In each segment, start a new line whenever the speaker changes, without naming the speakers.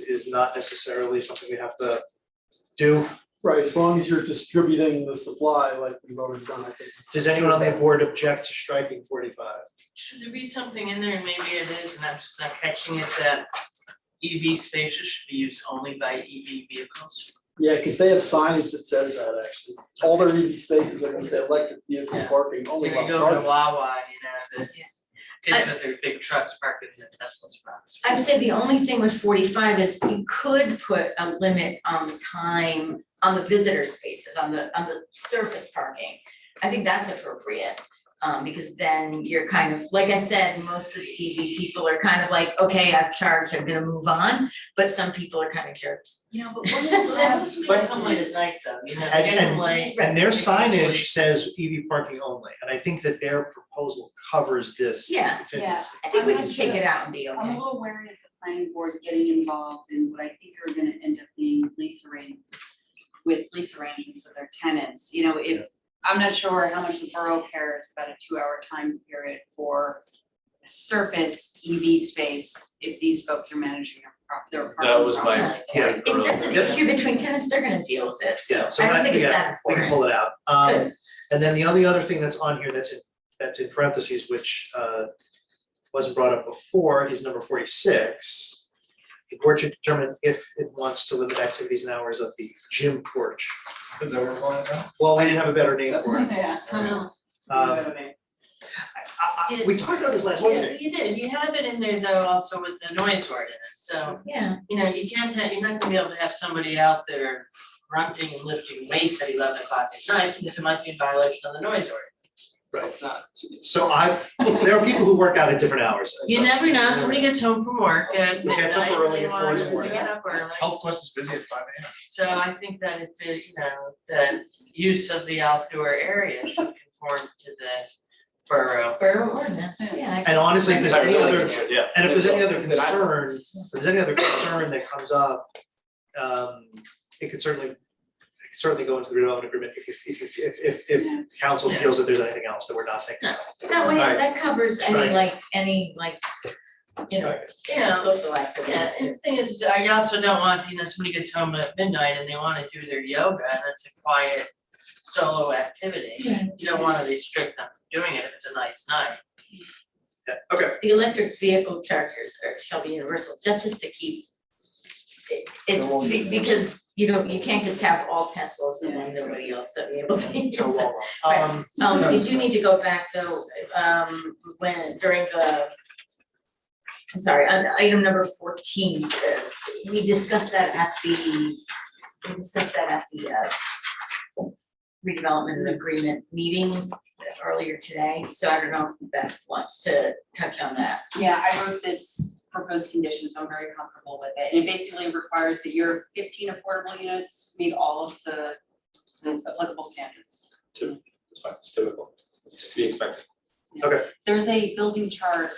is not necessarily something we have to do.
Right, as long as you're distributing the supply like we've always done, I think.
Does anyone on the board object to striking forty-five?
Should there be something in there, and maybe it is, and I'm just not catching it, that EV spaces should be used only by EV vehicles?
Yeah, because they have signage that says that actually. All their EV spaces are gonna say electric vehicle
Yeah.
parking, only
When
about
you go to
charging.
Wawa, you know, the
Yeah.
kids with their big trucks parked in the Tesla spots.
I would say the only thing with forty-five is you could put a limit on the time on the visitor spaces, on the, on the surface parking. I think that's appropriate, um, because then you're kind of, like I said, most of the EV people are kind of like, okay, I've charged, I'm gonna move on. But some people are kind of jerks.
Yeah, but what if that
But it's only at night though, you know,
And-
get
and-
them late.
And their signage says EV parking only, and I think that their proposal covers this
Yeah,
contingency.
yeah.
I think we can kick it out and be
I'm a
okay.
little wary of the planning board getting involved in what I think are gonna end up being lease arrangements with lease arrangements with their tenants, you know, if, I'm not sure how much the borough cares about a two-hour time period for a surface EV space if these folks are managing their prop, their apartment
That was my
properly.
Yeah.
If there's an
Yes.
issue between tenants, they're gonna deal with it, so
Yeah, so
I don't
that,
think it's
yeah,
that
we can pull it out. Um, and then the only other thing that's on here that's in, that's in parentheses, which, uh, wasn't brought up before, is number forty-six. The board should determine if it wants to limit activities and hours of the gym porch.
Is that what we're calling it now?
Well, we didn't have a better name for it.
Yeah.
Oh,
Uh,
Um, I, I, we talked about this last
no. Yeah,
week.
you did, you have it in there though also with the noise ordinance, so,
yeah,
you know, you can't have, you're not gonna be able to have somebody out there grunting and lifting weights at eleven o'clock at night, because it might be a violation of the noise ordinance.
Right. So I, there are people who work out at different hours.
You
so-
never know, somebody gets home from work at
Who
midnight,
gets up early
they
at four
want
in the
to
morning.
get up early.
Health Quest is busy at five AM.
So I think that it's, a, you know, the use of the outdoor area should conform to the borough.
borough ordinance, yeah. I guess.
And honestly, if there's any other,
Yeah.
And if there's any other concern, if there's any other concern that comes up, um, it could certainly, it could certainly go into the redevelopment agreement if, you- if, if, if, if,
Yeah.
if council
Yeah.
feels that there's anything else that we're not thinking about.
That way,
Alright.
that covers
Right.
any like, any like, you know, social activities.
Yeah, and the thing is, I also don't want, you know, somebody gets home at midnight and they wanna do their yoga, and that's a quiet solo activity.
Yeah.
You don't wanna restrict them from doing it if it's a nice night.
Yeah, okay,
The electric vehicle chargers are, shall be universal, just as to keep. it-
They're all
It's be-
universal.
because, you know, you can't just have all Teslas and then nobody else to be able to use
so
it.
well, well, um,
Um, we do need to go back though, um, when, during the. I'm sorry, on item number fourteen, uh, we discussed that at the, we discussed that at the, uh. Redevelopment agreement meeting earlier today, so I don't know if Beth wants to touch on that.
Yeah, I wrote this proposed condition, so I'm very comfortable with it. And it basically requires that your fifteen affordable units meet all of the applicable standards.
It's fine, it's typical, it's to be expected.
there's a building chart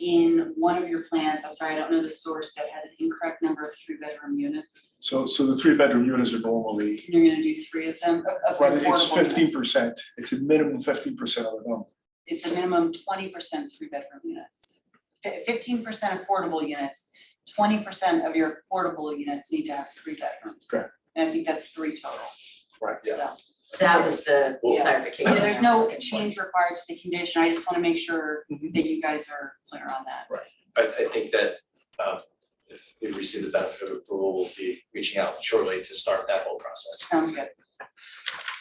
in one of your plans, I'm sorry, I don't know the source, that has an incorrect number of three-bedroom units.
So, so the three-bedroom units are normally,
And You're gonna do three of them, of- of
but
affordable
it's fifteen
units.
percent, it's a minimum fifteen percent of the number.
It's a minimum twenty percent three-bedroom units. Fifteen percent affordable units, twenty percent of your affordable units need to have three bedrooms.
Correct.
And I think that's three total,
Right.
so.
That was the
Well-
clarification.
So there's
I was
no
looking for.
change required to the condition, I just wanna make sure
Mhm.
that you guys are clear on that.
Mm-hmm. I, I think that, um, if we receive the benefit of approval, we'll be reaching out shortly to start that whole process.
Sounds good.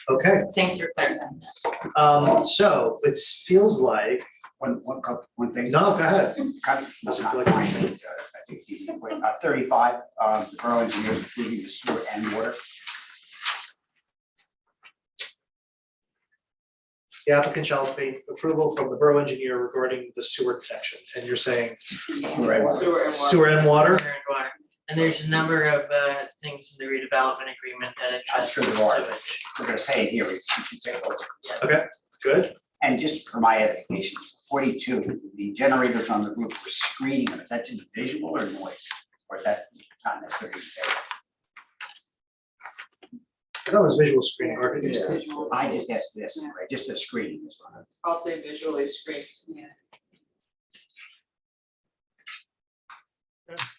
okay,
Thanks for clarifying that.
um, so it feels like,
One, one, couple- one thing.
no, go ahead,
Kind of,
Does
well,
it
not
feel like-
mine, but, uh, I think the, uh, thirty-five, uh, the borough engineers approving the sewer and water.
the applicant shall obtain approval from the borough engineer regarding the sewer connection, and you're saying
Sewer and water.
Sewer and water.
Sewer and water. And there's a number of uh things in the redevelopment agreement that
I'm
address
sure there are.
sewage.
We're gonna say it here, we should say both.
good,
And just for my edification, forty-two, the generators on the roof were screening, them. is that just visual or noise? Or is that not necessarily?
that was visual screening, or
Visual.
I just asked this, right, just the screening is one of
I'll say visually screened.
Yeah.